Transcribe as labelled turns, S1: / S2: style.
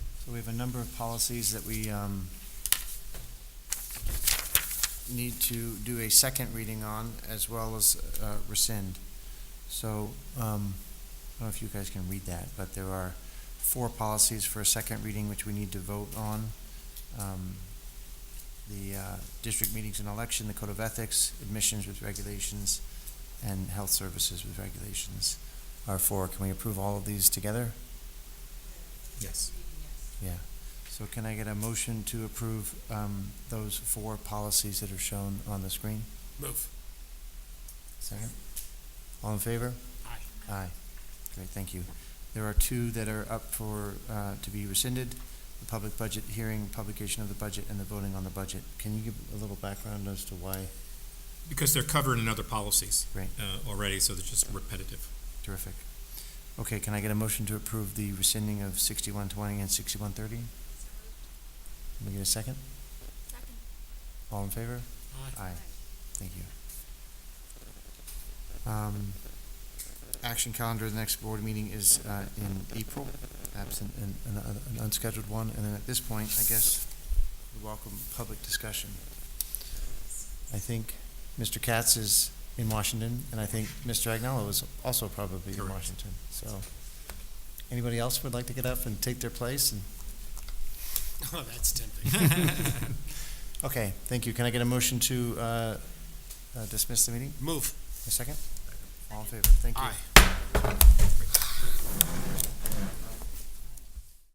S1: We have a number of policies that we um, need to do a second reading on, as well as uh, rescind. So, um, I don't know if you guys can read that, but there are four policies for a second reading which we need to vote on. Um, The uh, district meetings and election, the code of ethics, admissions with regulations, and health services with regulations are four. Can we approve all of these together?
S2: Yes.
S1: Yeah. So can I get a motion to approve um, those four policies that are shown on the screen?
S2: Move.
S1: Second? All in favor?
S2: Aye.
S1: Aye. Great, thank you. There are two that are up for, uh, to be rescinded, the public budget hearing, publication of the budget, and the voting on the budget. Can you give a little background as to why?
S2: Because they're covered in other policies.
S1: Right.
S2: Uh, already, so they're just repetitive.
S1: Terrific. Okay, can I get a motion to approve the rescinding of sixty-one twenty and sixty-one thirty? Can we get a second?
S3: Second.
S1: All in favor? Aye. Thank you. Um, Action calendar, the next board meeting is uh, in April, absent an- an an unscheduled one. And then at this point, I guess, we welcome public discussion. I think Mr. Katz is in Washington, and I think Mr. Agnello is also probably in
S2: Correct.
S1: Washington. So, anybody else would like to get up and take their place? And
S2: Oh, that's tempting.
S1: Okay, thank you. Can I get a motion to uh, uh, dismiss the meeting?
S2: Move.
S1: A second? All in favor? Thank you.
S2: Aye.